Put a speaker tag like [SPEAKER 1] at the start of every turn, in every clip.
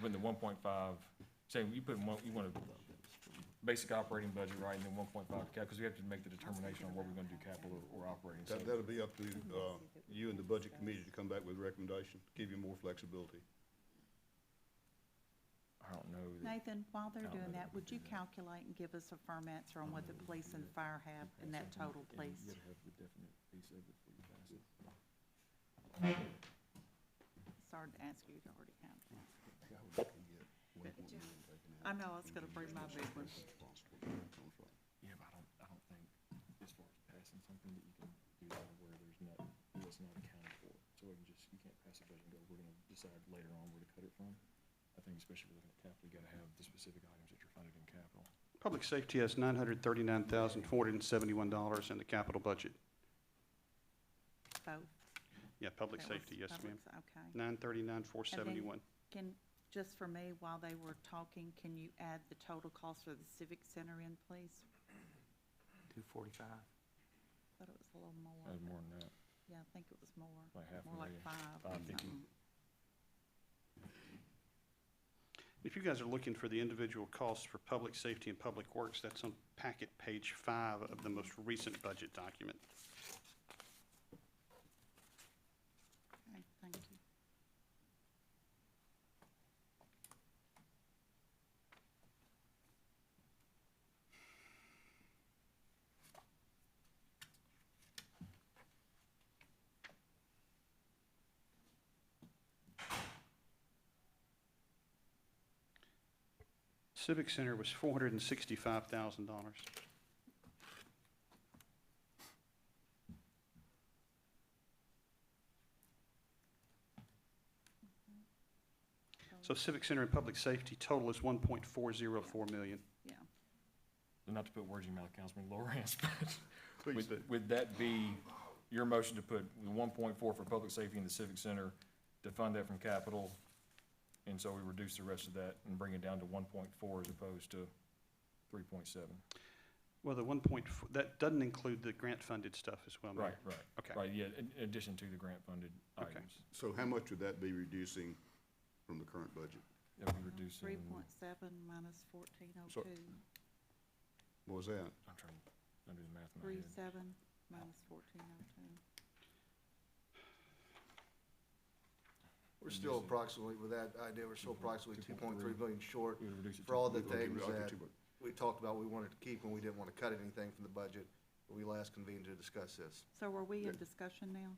[SPEAKER 1] putting the one point five, say, you put in one, you want a basic operating budget, right, and then one point five cap, because we have to make the determination on what we're gonna do capital or operating. So
[SPEAKER 2] That, that'll be up to, uh, you and the budget committee to come back with a recommendation, give you more flexibility.
[SPEAKER 1] I don't know. that-
[SPEAKER 3] Nathan, while they're
[SPEAKER 1] don't know
[SPEAKER 3] doing
[SPEAKER 1] that
[SPEAKER 3] that, would you calculate and give us a firm answer on what the police and the fire have in that total, please? It's hard to ask you to already have that. I know, I was gonna bring my big one.
[SPEAKER 1] Yeah, but I don't, I don't think, as far as passing something, that you can do that where there's not, it's not accounted for. So we can just, you can't pass a budget and go, we're gonna decide later on where to cut it from. I think especially with looking at capital, you gotta have the specific items that you're funded in capital.
[SPEAKER 4] Public safety has nine hundred thirty-nine thousand, four hundred and seventy-one dollars in the capital budget.
[SPEAKER 3] Both.
[SPEAKER 4] Yeah, public
[SPEAKER 3] That was
[SPEAKER 4] safety, yes, ma'am.
[SPEAKER 3] public- Okay.
[SPEAKER 4] Nine thirty-nine, four seventy-one.
[SPEAKER 3] Can, just for me, while they were talking, can you add the total cost for the Civic Center in, please?
[SPEAKER 5] Two forty-five.
[SPEAKER 3] Thought it was a little more.
[SPEAKER 1] Uh, more than that,
[SPEAKER 3] Yeah, I think it was more,
[SPEAKER 1] like half a
[SPEAKER 3] more like
[SPEAKER 1] million. Oh,
[SPEAKER 3] five or
[SPEAKER 1] Five fifty.
[SPEAKER 3] something.
[SPEAKER 4] If you guys are looking for the individual costs for public safety and public works, that's on packet page five of the most recent budget document.
[SPEAKER 3] Okay, thank you.
[SPEAKER 4] Civic Center was four hundred and sixty-five thousand dollars. So Civic Center and Public Safety total is one point four zero four million.
[SPEAKER 3] Yeah.
[SPEAKER 1] Not to put words in your mouth, Councilman Lawrence, but
[SPEAKER 2] Please do.
[SPEAKER 1] Would, would that be your motion to put the one point four for public safety in the civic center to fund that from capital? And so we reduce the rest of that and bring it down to one point four as opposed to three point seven?
[SPEAKER 4] Well, the one point, that doesn't include the grant-funded stuff as well, Mayor.
[SPEAKER 1] Right, right.
[SPEAKER 4] Okay.
[SPEAKER 1] Right, yeah, in in addition to the grant funded
[SPEAKER 4] Okay.
[SPEAKER 1] items.
[SPEAKER 2] So how much would that be reducing from the current budget?
[SPEAKER 1] That we reduce in,
[SPEAKER 3] Three point seven minus fourteen oh
[SPEAKER 2] So-
[SPEAKER 3] two,
[SPEAKER 2] What was that?
[SPEAKER 1] I'm trying, I'm doing the math in my
[SPEAKER 3] three
[SPEAKER 1] head.
[SPEAKER 3] seven minus fourteen oh two.
[SPEAKER 6] We're still approximately, with that idea, we're still approximately two point three
[SPEAKER 1] 2.3.
[SPEAKER 6] billion short
[SPEAKER 1] We would reduce it to-
[SPEAKER 6] for all the
[SPEAKER 2] We're looking-
[SPEAKER 6] things
[SPEAKER 2] we're looking
[SPEAKER 6] that
[SPEAKER 2] to-
[SPEAKER 6] we talked about we wanted to keep and we didn't want to cut anything from the budget. when We last convened to discuss this.
[SPEAKER 3] So are we in
[SPEAKER 2] Yeah.
[SPEAKER 3] discussion now?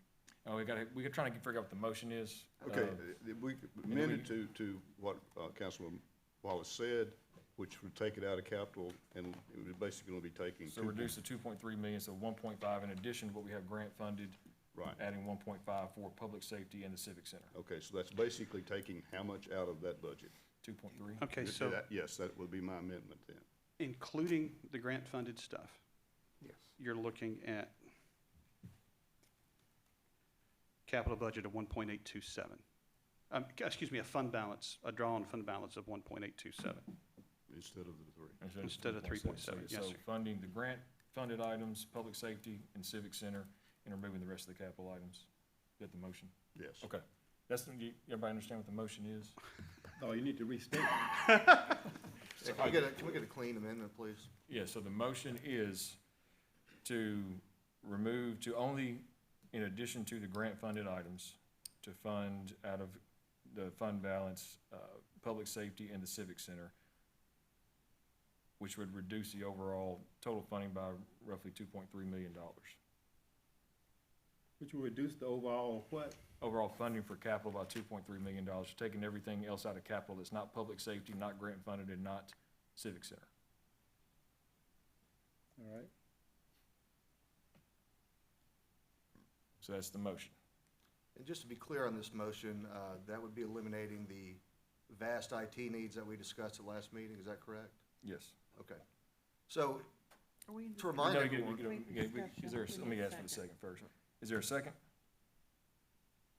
[SPEAKER 1] Oh, we gotta, we're trying to figure out what the motion is.
[SPEAKER 2] Okay,
[SPEAKER 1] Uh,
[SPEAKER 2] uh, we amended to, to what uh, Councilman Wallace said, which would take it out of capital, and it was basically gonna be taking
[SPEAKER 1] So
[SPEAKER 2] two-
[SPEAKER 1] reduce the two point three million, so one point five in addition to what we have grant funded.
[SPEAKER 2] Right,
[SPEAKER 1] adding one point five for public safety and the civic center,
[SPEAKER 2] okay, so that's basically taking how much out of that budget?
[SPEAKER 1] two point three.
[SPEAKER 4] Okay, so
[SPEAKER 2] That- Yes, that would be my amendment then.
[SPEAKER 4] including the grant-funded stuff,
[SPEAKER 5] Yes.
[SPEAKER 4] you're looking at capital budget of one point eight two seven. Um, c- excuse me, a fund balance, a drawn fund balance of one point eight two seven.
[SPEAKER 2] Instead of the three.
[SPEAKER 4] Instead of 3.7, yes,
[SPEAKER 1] So
[SPEAKER 4] sir.
[SPEAKER 1] funding the grant funded items, public safety and civic center, and removing the rest of the capital items. Get the motion?
[SPEAKER 2] Yes.
[SPEAKER 1] Okay. That's, the- you- everybody understand what the motion is?
[SPEAKER 7] Oh, you need to restate.
[SPEAKER 6] Yeah, Can we get a, can we get a clean amendment, please?
[SPEAKER 1] Yeah, so the motion is to remove, to only, in addition to the grant funded items, to fund out of the fund balance, uh, public safety and the civic center, which would reduce the overall total funding by roughly two point three million dollars.
[SPEAKER 7] Which will reduce the overall what?
[SPEAKER 1] Overall funding for capital by two point three million dollars, taking everything else out of capital that's not public safety, not grant funded, and not civic center.
[SPEAKER 7] All right.
[SPEAKER 1] So that's the motion.
[SPEAKER 6] And just to be clear on this motion, uh, that would be eliminating the vast IT needs that we discussed at last meeting, is that correct?
[SPEAKER 1] Yes.
[SPEAKER 6] Okay. So
[SPEAKER 3] Are we in
[SPEAKER 6] to
[SPEAKER 3] discussion?
[SPEAKER 6] remind
[SPEAKER 1] No, you get- you
[SPEAKER 6] everyone,
[SPEAKER 1] get-
[SPEAKER 3] Wait,
[SPEAKER 1] you get-
[SPEAKER 3] discussion.
[SPEAKER 1] Is there, a-
[SPEAKER 3] We
[SPEAKER 1] let me
[SPEAKER 3] need a
[SPEAKER 1] ask for the
[SPEAKER 3] second.
[SPEAKER 1] second first. Is there a second?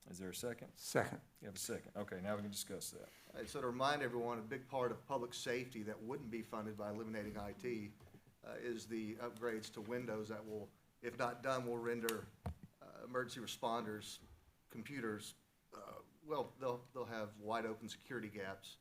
[SPEAKER 1] Is there a second?
[SPEAKER 5] Second.
[SPEAKER 1] You have a second. Okay, now we can discuss that.
[SPEAKER 6] And so to remind everyone, a big part of public safety that wouldn't be funded by eliminating IT uh, is the upgrades to Windows that will, if not done, will render uh, emergency responders, computers, uh, well, they'll, they'll have wide open security gaps